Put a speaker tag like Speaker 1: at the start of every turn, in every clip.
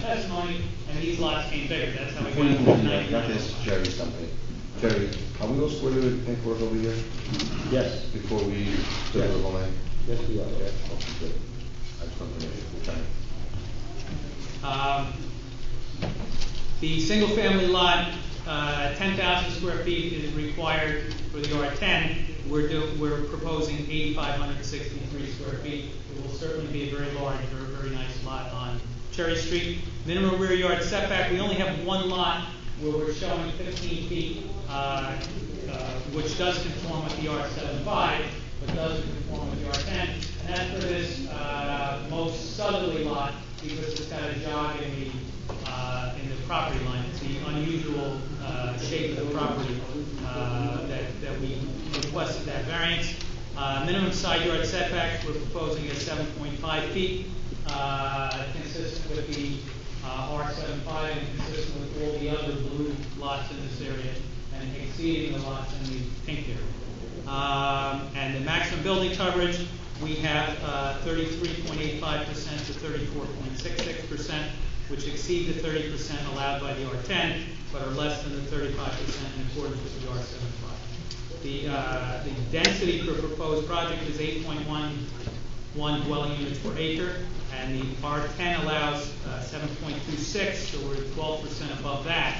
Speaker 1: testimony, and these lots came bigger, that's how we
Speaker 2: Before you
Speaker 1: got
Speaker 2: move
Speaker 1: to
Speaker 2: on, not this
Speaker 1: ninety-nine.
Speaker 2: Jerry something. Jerry, are we all squared away with paperwork over here
Speaker 3: Yes,
Speaker 2: before we go to the line?
Speaker 3: yes, we are.
Speaker 2: Okay, good. I just want to make sure we're done.
Speaker 1: Um, The single-family lot, uh, ten thousand square feet is required for the R ten. We're do, we're proposing eighty-five hundred sixty-three square feet. It will certainly be a very large, very, very nice lot on Cherry Street. Minimum rear yard setback, we only have one lot where we're showing fifteen feet, uh, uh, which does conform with the R seven but doesn't conform with the R ten. And that's for this, uh, most southerly lot, because it's got a jog in the, uh, in the property line. It's the unusual, uh, shape of the property, uh, that, that we requested that variance. Uh, minimum side yard setback, we're proposing at seven point five feet, uh, consistent with the, uh, R seven and consistent with all the other blue lots in this area, and exceeding the lots in the pink area. Um, And the maximum building coverage, we have uh, thirty-three point eight five percent to thirty-four point six six percent, which exceed the thirty percent allowed by the R ten, but are less than the thirty-five percent in accordance with the R 75 The, uh, the density for proposed project is eight point one one dwelling units per acre, and the R ten allows uh, seven point two six, so we're twelve percent above that,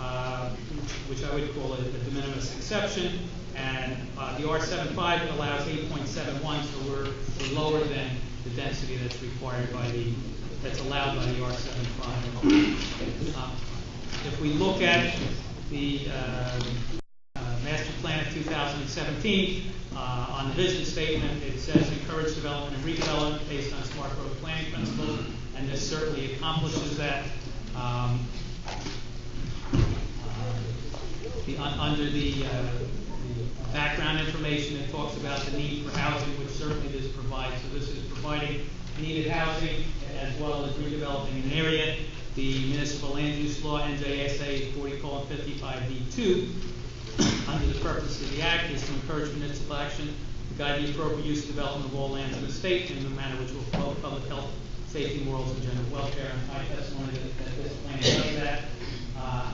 Speaker 1: uh, which which I would call a a de minimis exception, and uh, the R 75 allows eight point seven one, so we're we're lower than the density that's required by the, that's allowed by the R 75 Uh, If we look at the, uh, uh, master plan of 2017, uh, on the vision statement, it says encourage development and redevelopment based on smart growth planning principles, and this certainly accomplishes that. Um, the, un- under the, uh, the background information, it talks about the need for housing, which certainly this provides. So this is providing needed housing as well as redeveloping an area. The municipal land use law, NJSA forty fifty-five D two, under the purpose of the act is to encourage municipal action to guide the appropriate use and development of all lands in the state in a manner which will promote public health, safety, morals, and general welfare. And my testimony that that this plan does that. Uh,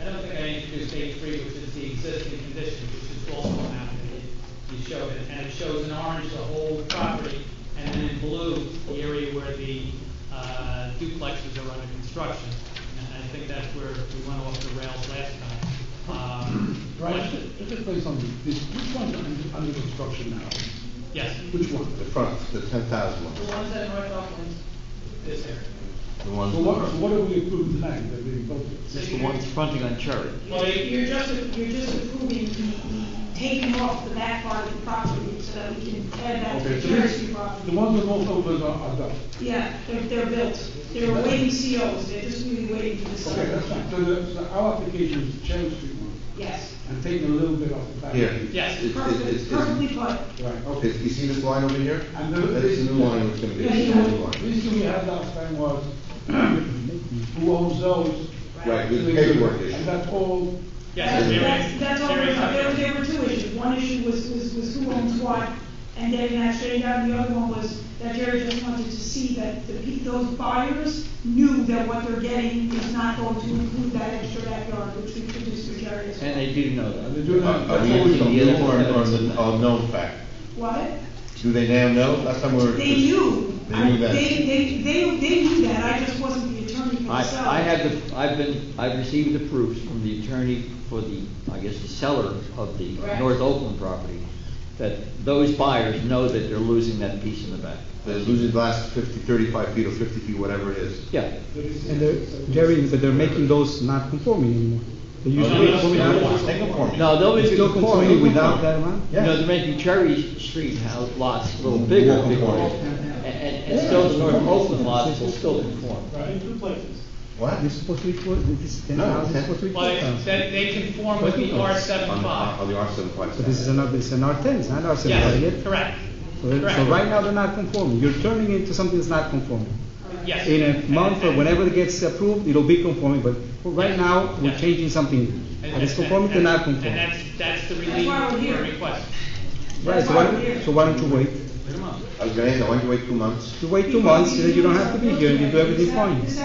Speaker 1: I don't think I introduced A three, which is the existing condition, which is also an affidavit. You showed it, and it shows in orange the whole property, and then in blue, the area where the uh, duplexes are under construction. And I think that's where we went off the rails last time. Um,
Speaker 4: Right, just to play something, this, which one's under, under construction now?
Speaker 1: Yes.
Speaker 4: Which one?
Speaker 2: The front, the ten thousand one,
Speaker 1: The ones that are right off this area.
Speaker 2: the one.
Speaker 4: So what, so what have we approved tonight that we voted?
Speaker 5: It's the ones fronting on Cherry.
Speaker 1: Well, you-
Speaker 6: You're just, you're just approving the, the taking off the back part of the property so that we can add that
Speaker 4: Okay,
Speaker 6: to
Speaker 4: so
Speaker 6: the
Speaker 4: this-
Speaker 6: Cherry
Speaker 4: the
Speaker 6: property.
Speaker 4: ones that rolled over are, are done.
Speaker 6: Yeah, they're, they're built. They're waiting COs. They're just really waiting for the sign.
Speaker 4: Okay, that's fine, so the, so our application is the Cherry Street one,
Speaker 6: Yes.
Speaker 4: and taking a little bit off the back.
Speaker 2: Here.
Speaker 1: Yes.
Speaker 2: It- it-
Speaker 6: Perfect,
Speaker 2: it's-
Speaker 6: perfectly
Speaker 2: it's-
Speaker 6: put.
Speaker 4: Right, okay.
Speaker 2: Okay, you see this line over here?
Speaker 4: And the-
Speaker 2: That's the new line, it's gonna be.
Speaker 4: The
Speaker 2: it's
Speaker 4: issue,
Speaker 2: the new
Speaker 4: the
Speaker 2: line.
Speaker 4: issue we had last time was, who owns those?
Speaker 2: Right, with the paperwork
Speaker 4: And
Speaker 2: issue.
Speaker 4: that's all,
Speaker 1: Yes,
Speaker 6: That's-
Speaker 1: there
Speaker 6: That's,
Speaker 1: is.
Speaker 6: that's all,
Speaker 1: There
Speaker 6: there,
Speaker 1: is
Speaker 6: there
Speaker 1: something.
Speaker 6: there were two issues. One issue was, was, was who owns what, and getting that straightened out. The other one was that Jerry just wanted to see that the, pe- those buyers knew that what they're getting is not going to include that extra backyard, which we produced for Jerry as
Speaker 5: And
Speaker 6: well.
Speaker 5: they do know
Speaker 4: and they
Speaker 5: that.
Speaker 4: do
Speaker 2: Are
Speaker 4: that,
Speaker 2: are
Speaker 4: that's
Speaker 2: we,
Speaker 4: all we
Speaker 5: using
Speaker 4: done.
Speaker 5: the- Um,
Speaker 2: or, or, the- or known fact?
Speaker 6: What?
Speaker 2: Do they now know? Last time we were.
Speaker 6: They knew.
Speaker 2: They knew that.
Speaker 6: They, they, they, they knew that, I just wasn't the attorney for
Speaker 5: I,
Speaker 6: the seller.
Speaker 5: I have the, I've been, I've received the proofs from the attorney for the, I guess, the seller of the
Speaker 6: Correct.
Speaker 5: North Oakland property, that those buyers know that they're losing that piece in the back.
Speaker 2: They're losing the last fifty, thirty-five feet or fifty feet, whatever it is.
Speaker 5: Yeah,
Speaker 7: And they're, Jerry, but they're making those not conforming anymore. They used
Speaker 1: Oh,
Speaker 7: to be conforming.
Speaker 2: They conform.
Speaker 5: no, they'll be
Speaker 7: It's still
Speaker 5: conforming
Speaker 7: conforming without
Speaker 5: without,
Speaker 7: that amount?
Speaker 5: you know, they're making Cherry Street house lots a little bigger,
Speaker 2: More
Speaker 5: bigger.
Speaker 2: conforming.
Speaker 5: And, and, and still the North Oakland lots will still conform.
Speaker 4: Right, two places.
Speaker 2: What?
Speaker 7: They're supposed to be four, this is ten
Speaker 2: No,
Speaker 7: thousand,
Speaker 2: ten-
Speaker 7: supposed to be four
Speaker 1: Well,
Speaker 7: thousand.
Speaker 1: they, they conform with
Speaker 7: Oh,
Speaker 1: the R
Speaker 2: On
Speaker 1: seven
Speaker 2: the, on
Speaker 7: Uh,
Speaker 1: five.
Speaker 2: the R seventy-five.
Speaker 7: So this is another, this is an R ten, it's not R seventy-five yet.
Speaker 1: Yes, correct.
Speaker 7: So they're- So
Speaker 1: correct.
Speaker 7: right now, they're not conforming. You're turning into something that's not conforming.
Speaker 1: Yes.
Speaker 7: In a month or whenever it gets approved, it'll be conforming, but right now,
Speaker 1: Yeah.
Speaker 7: we're changing something.
Speaker 1: And-
Speaker 7: That is
Speaker 1: and-
Speaker 7: conforming to
Speaker 1: and- And
Speaker 7: not conforming.
Speaker 1: that's, that's the
Speaker 6: That's
Speaker 1: relief
Speaker 6: why we're
Speaker 1: we're
Speaker 6: here.
Speaker 1: requesting.
Speaker 7: Right, so why, don't- so why don't you wait?
Speaker 2: I was gonna ask, I want you to wait two months.
Speaker 7: You wait two months, then you don't have to be here, and you do everything
Speaker 6: This
Speaker 7: fine.
Speaker 6: hap- this